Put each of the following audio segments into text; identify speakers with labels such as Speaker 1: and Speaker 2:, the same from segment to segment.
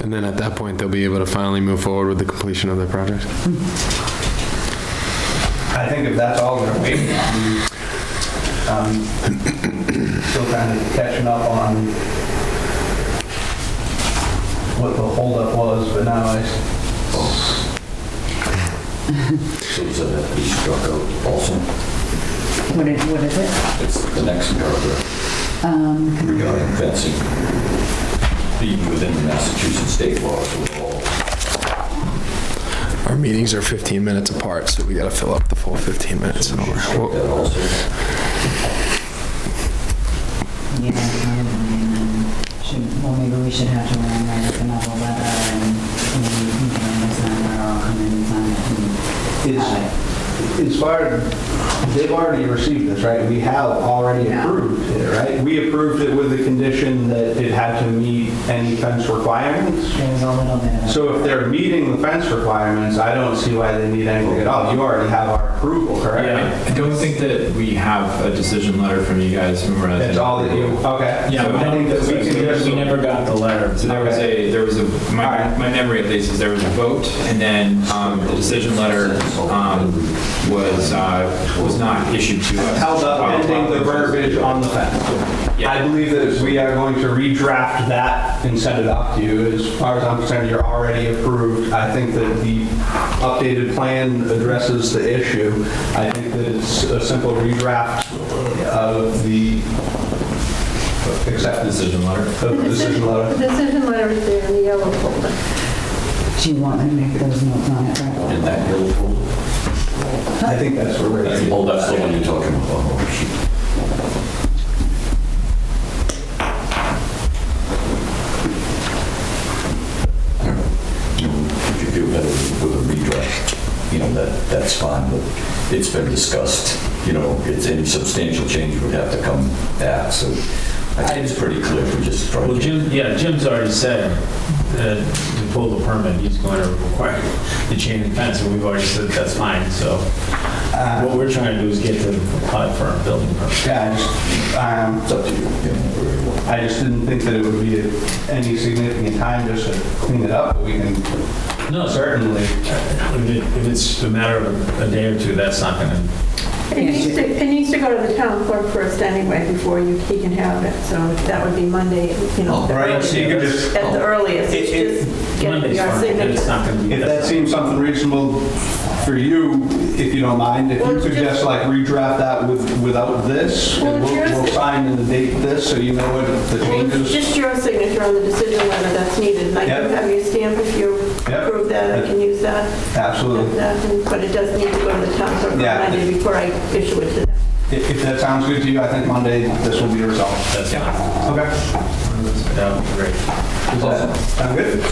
Speaker 1: And then at that point, they'll be able to finally move forward with the completion of their project.
Speaker 2: I think if that's all we're waiting on, um, still kind of catching up on what the holdup was, but now I, s-
Speaker 3: So does that have to be struck out also?
Speaker 4: What is, what is it?
Speaker 3: It's the next paragraph
Speaker 4: Um,
Speaker 3: regarding fencing. Being within the Massachusetts state laws will all
Speaker 5: Our meetings are 15 minutes apart, so we gotta fill up the full 15 minutes. an hour.
Speaker 3: strike that also.
Speaker 4: yeah, um, should, well, maybe we should have to run write up another letter and maybe you can just sign it or I'll come in and sign it and have
Speaker 2: it's far, they've already received this, right? We have already
Speaker 4: Yeah.
Speaker 2: approved it, right? We approved it with the condition that it had to meet any fence requirements.
Speaker 4: it. There was a little bit of a.
Speaker 2: So if they're meeting the fence requirements, I don't see why they need anything at all. You already have our approval, correct?
Speaker 6: Yeah, I don't think that we have a decision letter from you guys memorized.
Speaker 2: That's all that you, okay.
Speaker 6: Yeah,
Speaker 2: So
Speaker 6: we
Speaker 2: I think that we can
Speaker 6: never,
Speaker 2: just.
Speaker 6: we never got the letter. So there was a, there was a, my,
Speaker 2: Alright.
Speaker 6: my memory at least is there was a vote and then, um, the decision letter, um, was, uh, was not issued to us.
Speaker 2: held up ending the verbiage on the fence.
Speaker 6: Yeah.
Speaker 2: I believe that we are going to redraft that and send it off to you. As far as I'm concerned, you're already approved. I think that the updated plan addresses the issue. I think that it's a simple redraft of the acceptance
Speaker 6: Decision letter.
Speaker 2: of the decision letter.
Speaker 7: The decision letter is there in the yellow folder.
Speaker 4: Do you want me to make those notes on it right away?
Speaker 3: In that yellow folder?
Speaker 2: I think that's where we're.
Speaker 3: Oh, that's the one you're talking about. Oh, shoot. If you feel better with a redraft, you know, that, that's fine, but it's been discussed. You know, it's any substantial change would have to come back, so I think it's pretty clear if we just try to.
Speaker 8: Well,
Speaker 3: get-
Speaker 8: Jim, yeah, Jim's already said that to pull the permit, he's going to require the chain link fence, and we've already said that's fine, so
Speaker 2: Uh,
Speaker 8: what we're trying to do is get them to apply for a building permit.
Speaker 2: Yeah, I just, um,
Speaker 3: It's up to you, you know, whatever you want.
Speaker 2: I just didn't think that it would be any significant time just to clean it up. We can
Speaker 8: No, sir,
Speaker 2: certainly
Speaker 8: if it- if it's a matter of a day or two, that's not going to,
Speaker 7: It needs to, it needs to go to the town clerk first anyway before you, he can have it, so that would be Monday, you know. the
Speaker 2: Oh, Right, so you could
Speaker 7: earliest-
Speaker 2: just-
Speaker 7: At the earliest,
Speaker 2: It- it-
Speaker 7: it's just getting
Speaker 8: Monday's
Speaker 7: your
Speaker 8: fine, but it's
Speaker 7: signature.
Speaker 8: not going to be.
Speaker 2: If that seems something reasonable for you, if you don't mind, if you could just like redraft that with, without this, and we'll, we'll sign and date this, so you know what the
Speaker 7: Well, It's
Speaker 2: changes.
Speaker 7: just your signature on the decision letter that's needed, and I can
Speaker 2: Yep.
Speaker 7: have your stamp if you
Speaker 2: Yep.
Speaker 7: approve that, I can use that, and
Speaker 2: Absolutely.
Speaker 7: that, and- but it does need to go to the town clerk on
Speaker 2: Yeah.
Speaker 7: Monday before I issue it to them.
Speaker 2: If, if that sounds good to you, I think Monday, this will be resolved.
Speaker 8: That's fine.
Speaker 2: Okay.
Speaker 8: That would be great.
Speaker 2: Does that sound good?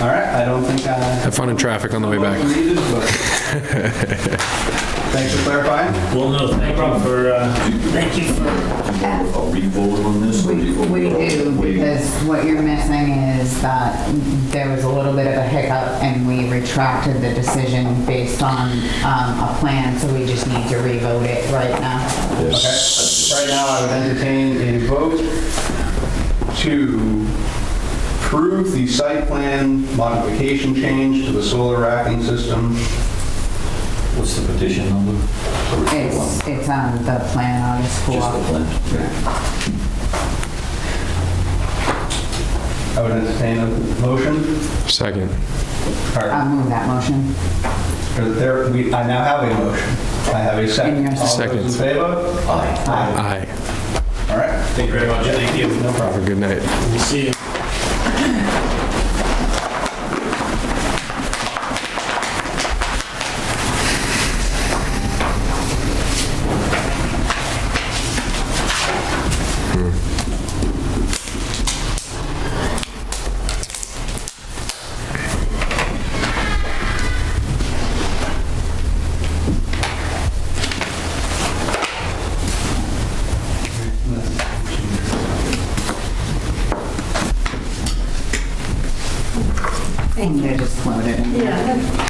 Speaker 2: All right, I don't think I.
Speaker 1: Have fun in traffic on the way back.
Speaker 2: Needed, but- Thanks for clarifying.
Speaker 8: Well, no, thank you for, uh,
Speaker 4: Thank you for
Speaker 3: Are we voting on this?
Speaker 4: We we do, because what you're missing is that there was a little bit of a hiccup, and we retracted the decision based on um, a plan, so we just need to revote it right now.
Speaker 2: Okay. Right now, I would entertain a vote to approve the site plan modification change to the solar racking system.
Speaker 3: What's the petition number?
Speaker 4: It's, it's on the plan, August
Speaker 3: Just
Speaker 4: 4th.
Speaker 3: the plan.
Speaker 2: I would entertain a motion,
Speaker 1: Second.
Speaker 2: or
Speaker 4: I'll move that motion.
Speaker 2: or there, we, I now have a motion. I have a second.
Speaker 4: And your
Speaker 2: All those in
Speaker 1: Second.
Speaker 2: favor?
Speaker 3: Aye.
Speaker 2: Aye.
Speaker 1: Aye.
Speaker 2: All right.
Speaker 8: thank you very much, thank you.
Speaker 2: No problem.
Speaker 1: Have a good night.
Speaker 8: We'll see you.
Speaker 4: And you just floated.
Speaker 7: Yeah.